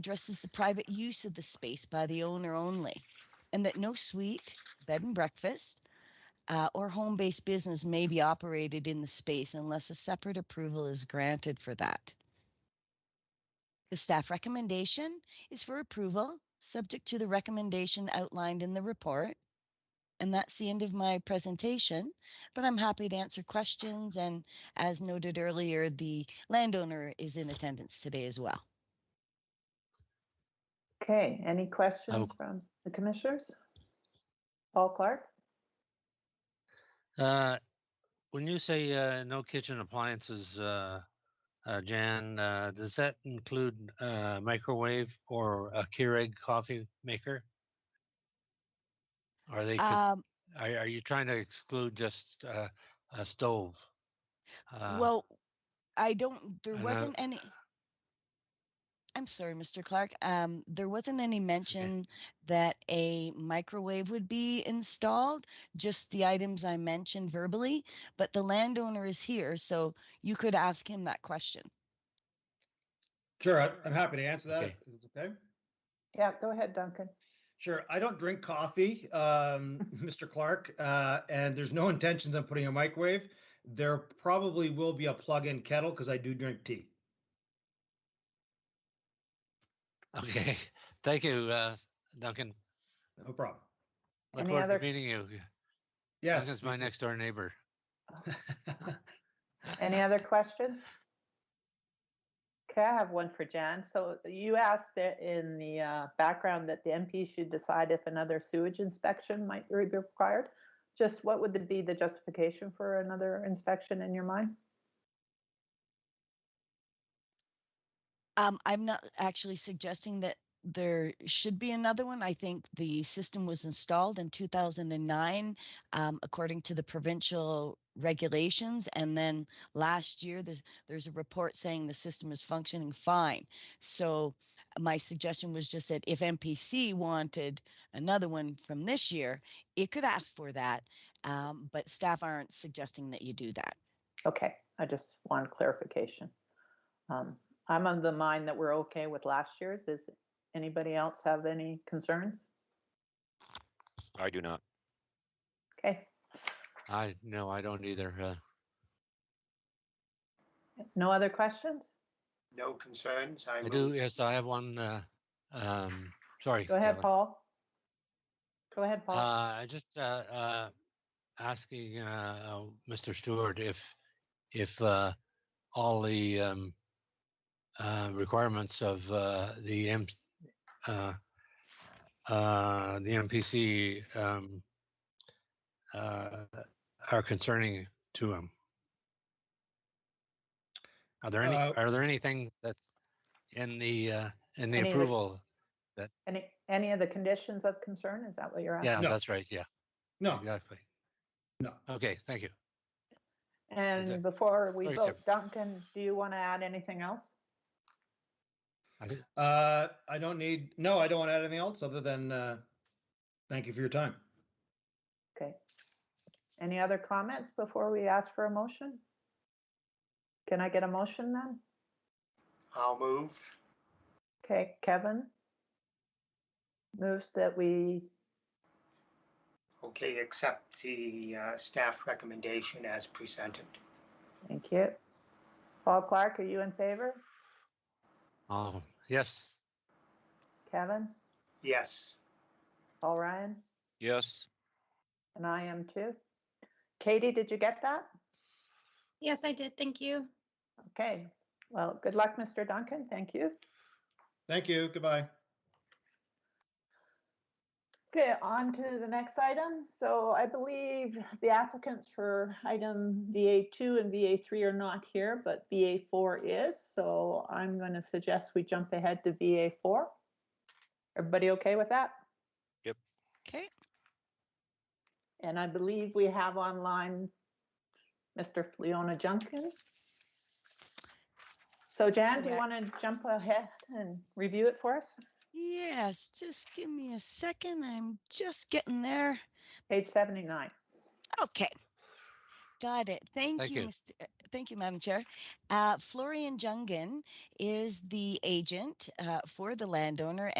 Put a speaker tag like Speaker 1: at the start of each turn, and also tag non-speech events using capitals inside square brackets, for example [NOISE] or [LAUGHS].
Speaker 1: addresses the private use of the space by the owner only, and that no suite, bed and breakfast, uh, or home based business may be operated in the space unless a separate approval is granted for that. The staff recommendation is for approval, subject to the recommendation outlined in the report. And that's the end of my presentation, but I'm happy to answer questions. And as noted earlier, the landowner is in attendance today as well.
Speaker 2: Okay, any questions from the commissioners? Paul Clark?
Speaker 3: Uh, When you say uh, no kitchen appliances, uh, uh, Jan, uh, does that include uh, microwave or a Keurig coffee maker? Are
Speaker 2: Uh
Speaker 3: they, con-
Speaker 1: Um,
Speaker 3: are are you trying to exclude just uh, a stove? Uh,
Speaker 1: well, I don't, there
Speaker 3: I know-
Speaker 1: wasn't any. I'm sorry, Mr. Clark. Um, there wasn't any mention that a microwave would be installed, just the items I mentioned verbally, but the landowner is here, so you could ask him that question.
Speaker 4: Sure, I- I'm happy to answer that.
Speaker 3: Okay.
Speaker 4: if It's okay.
Speaker 2: Yeah, go ahead, Duncan.
Speaker 4: Sure, I don't drink coffee, um, [LAUGHS] Mr. Clark, uh, and there's no intentions on putting a microwave. There probably will be a plug-in kettle because I do drink tea.
Speaker 3: [LAUGHS] Okay, thank you, uh, Duncan.
Speaker 4: No problem.
Speaker 3: Look
Speaker 2: Any
Speaker 3: forward
Speaker 2: other-
Speaker 3: to meeting you.
Speaker 4: Yes.
Speaker 3: Duncan's my next door neighbor.
Speaker 2: Any other questions? Okay, I have one for Jan. So you asked that in the uh, background that the MP should decide if another sewage inspection might be required. Just what would be the justification for another inspection in your mind?
Speaker 1: Um, I'm not actually suggesting that there should be another one. I think the system was installed in 2009, um, according to the provincial regulations. And then last year, there's, there's a report saying the system is functioning fine. So my suggestion was just that if MPC wanted another one from this year, it could ask for that. Um, but staff aren't suggesting that you do that.
Speaker 2: Okay, I just want clarification. Um, I'm of the mind that we're okay with last year's. Is anybody else have any concerns?
Speaker 5: I do not.
Speaker 2: Okay,
Speaker 3: I, no, I don't either. uh,
Speaker 2: no other questions?
Speaker 6: [LAUGHS] No concerns.
Speaker 3: I
Speaker 6: move-
Speaker 3: do, yes, I have one, uh, um, sorry.
Speaker 2: Go ahead,
Speaker 3: Kevin.
Speaker 2: Paul. Go ahead,
Speaker 3: Uh,
Speaker 2: Paul.
Speaker 3: I just, uh, uh, asking, uh, Mr. Stewart if, if, uh, all the, um, uh, requirements of, uh, the M, uh, uh, the MPC, um, uh, are concerning to him. Are there any,
Speaker 4: Uh,
Speaker 3: are there anything that in the, uh, in
Speaker 2: Any
Speaker 3: the
Speaker 2: of the-
Speaker 3: approval?
Speaker 2: Any, any of the conditions of concern? Is that what you're
Speaker 3: Yeah,
Speaker 2: asking?
Speaker 4: No.
Speaker 3: that's right, yeah.
Speaker 4: No,
Speaker 3: Exactly.
Speaker 4: no.
Speaker 3: Okay, thank you.
Speaker 2: And
Speaker 3: it-
Speaker 2: before we
Speaker 3: sorry,
Speaker 2: vote, Duncan, do you want to add anything else?
Speaker 3: I thi-
Speaker 4: Uh, I don't need, no, I don't want to add anything else other than, uh, thank you for your time.
Speaker 2: Okay. Any other comments before we ask for a motion? Can I get a motion then?
Speaker 6: I'll move.
Speaker 2: Okay, Kevin? Moves that we,
Speaker 6: Okay, accept the uh, staff recommendation as presented.
Speaker 2: thank you. Paul Clark, are you in favor?
Speaker 3: Oh, yes,
Speaker 2: Kevin?
Speaker 6: Yes,
Speaker 2: Paul Ryan?
Speaker 5: Yes.
Speaker 2: And I am too. Katie, did you get that?
Speaker 7: Yes, I did. Thank you.
Speaker 2: Okay, well, good luck, Mr. Duncan. Thank you.
Speaker 4: Thank you, goodbye.
Speaker 2: Okay, on to the next item. So I believe the applicants for item VA2 and VA3 are not here, but VA4 is. So I'm going to suggest we jump ahead to VA4. Everybody okay with that?
Speaker 1: Okay.
Speaker 2: And I believe we have online Mr. Leona Junkin. So Jan, do you want to jump ahead and review it for us?
Speaker 1: Yes, just give me a second. I'm just getting there.
Speaker 2: Page 79.
Speaker 1: Okay. Got it. Thank,
Speaker 3: Thank
Speaker 1: you,
Speaker 3: you.
Speaker 1: Mr. uh, Thank you, Madam Chair. Uh, Florian Jungen is the agent uh, for the landowner